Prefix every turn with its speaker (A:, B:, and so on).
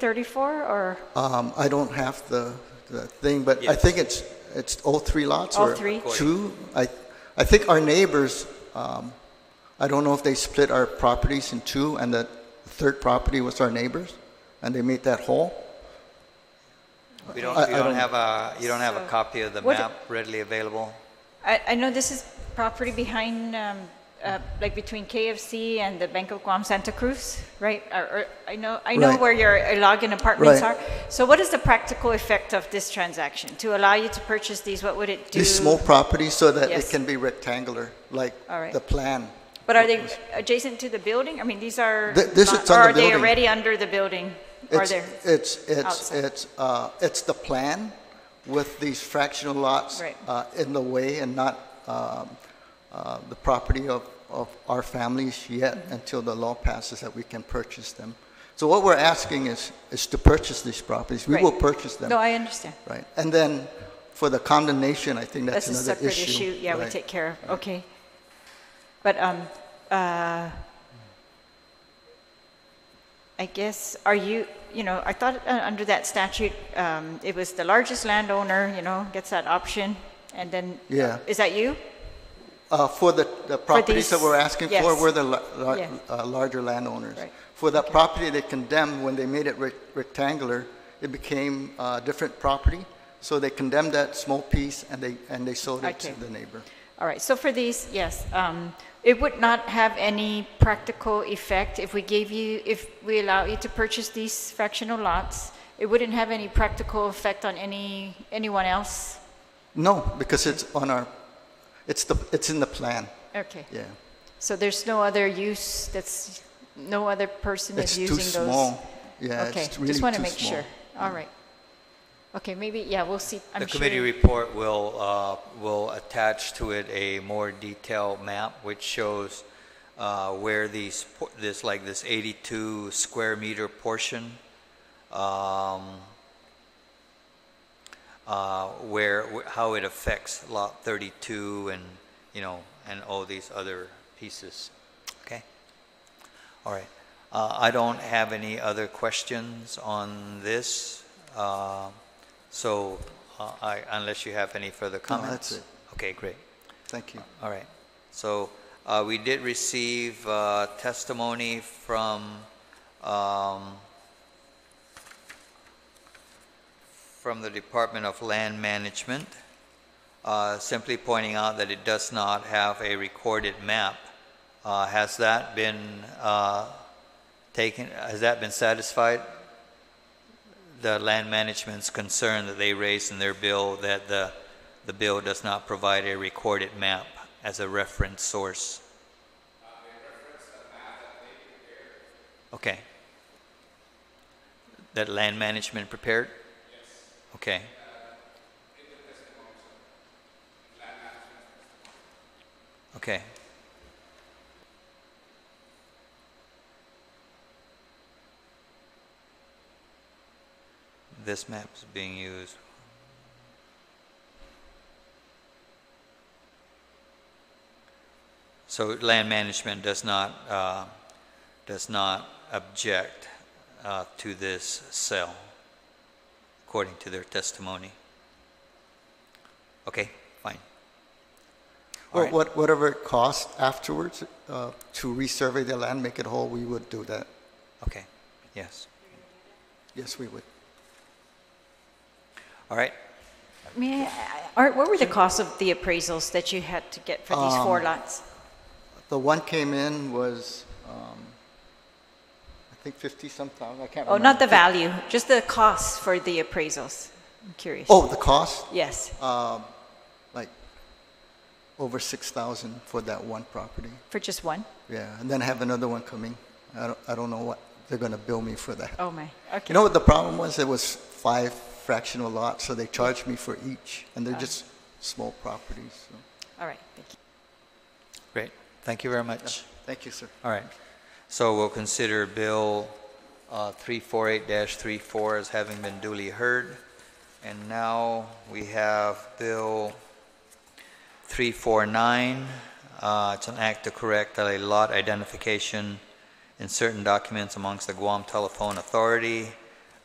A: 0334 or
B: Um, I don't have the, the thing, but I think it's, it's all three lots
A: All
B: or
A: three.
B: two. I, I think our neighbors, um, I don't know if they split our properties in two and the third property was our neighbors and they made that whole.
C: We don't,
B: I-
C: we
B: I
C: don't
B: don't-
C: have a, you don't have a
A: So-
C: copy of the
A: What-
C: map readily available?
A: I, I know this is property behind, um, uh, like between KFC and the Bank of Guam Santa Cruz, right? Or, or, I know, I know
B: Right.
A: where your login apartments are.
B: Right.
A: So what is the practical effect of this transaction? To allow you to purchase these, what would it do?
B: These small properties so that
A: Yes.
B: it can be rectangular, like
A: All right.
B: the plan.
A: But are they adjacent to the building? I mean, these are.
B: Th- this
A: not-
B: is on
A: or
B: the
A: are they
B: building.
A: already under the building? Are
B: It's,
A: there?
B: it's, it's,
A: outside?
B: it's, uh, it's the plan with these fractional lots
A: Right.
B: uh, in the way and not um, uh, the property of, of our families yet
A: Mm-hmm.
B: until the law passes that we can purchase them. So what we're asking is, is to purchase these properties. We
A: Right.
B: will purchase them.
A: No, I understand.
B: Right. And then for the condemnation, I think that's
A: That's a
B: another issue.
A: separate issue, yeah, we
B: Right.
A: take care of, okay. But, um, uh, I guess, are you, you know, I thought uh, under that statute, um, it was the largest landowner, you know, gets that option, and then.
B: Yeah.
A: Is that you?
B: Uh, For the the properties that
A: these-
B: we're asking for,
A: yes.
B: we're the la- la-
A: Yeah.
B: uh, larger landowners.
A: Right.
B: For that property they condemned, when they made it rec- rectangular, it became a different property. So they condemned that small piece and they, and they sold it to
A: Okay.
B: the neighbor.
A: All right, so for these, yes, um, it would not have any practical effect if we gave you, if we allow you to purchase these fractional lots. It wouldn't have any practical effect on any, anyone else?
B: No, because it's on our, it's the, it's in the plan,
A: Okay.
B: yeah.
A: So there's no other use, that's, no other person
B: It's
A: is
B: too
A: using those?
B: small. Yeah,
A: Okay,
B: it's really too
A: just
B: small.
A: want to make sure. All right. Okay, maybe, yeah, we'll see, I'm
C: The
A: sure.
C: committee report will, uh, will attach to it a more detailed map which shows uh, where these, por- this, like this 82 square meter portion, um, uh, where, wh- how it affects Lot 32 and, you know, and all these other pieces. Okay? All right. Uh, I don't have any other questions on this. Uh, So uh, I, unless you have any further comments?
B: that's it.
C: Okay, great.
B: Thank you.
C: All right. So uh, we did receive uh, testimony from, um, from the Department of Land Management, uh, simply pointing out that it does not have a recorded map. Uh, Has that been uh, taken, has that been satisfied? The land management's concern that they raised in their bill that the, the bill does not provide a recorded map as a reference source. Okay. That land management prepared? Yes. Okay. Okay. This map is being used. So land management does not, uh, does not object uh, to this sale, according to theure testimony. Okay, fine. All
B: Well,
C: right.
B: what- Whatever it costs afterwards uh, to resurvey the land, make it whole, we would do that.
C: Okay, yes.
B: Yes, we would.
C: All right,
A: May I, Uh, Art, what were the costs of the appraisals that you had to get for these
B: Um,
A: four lots?
B: The one came in was, um, I think 50 some thousand, I can't
A: Oh,
B: remember.
A: not the value, just the costs for the appraisals. I'm curious.
B: Oh, the cost,
A: Yes,
B: like over 6,000 for that one property.
A: for just one?
B: Yeah, and then I have another one coming. I don't, I don't know what they're going to bill me for that.
A: Oh, my, okay.
B: You know what the problem was? It was five fractional lots, so they charged me for each, and they're just small properties. so.
A: All right, thank you.
C: great. Thank you very much.
B: Thank you, sir.
C: All right. So we'll consider Bill uh, 348-34 as having been duly heard. And now we have Bill 349. uh, It's an act to correct a lot identification in certain documents amongst the Guam Telephone Authority,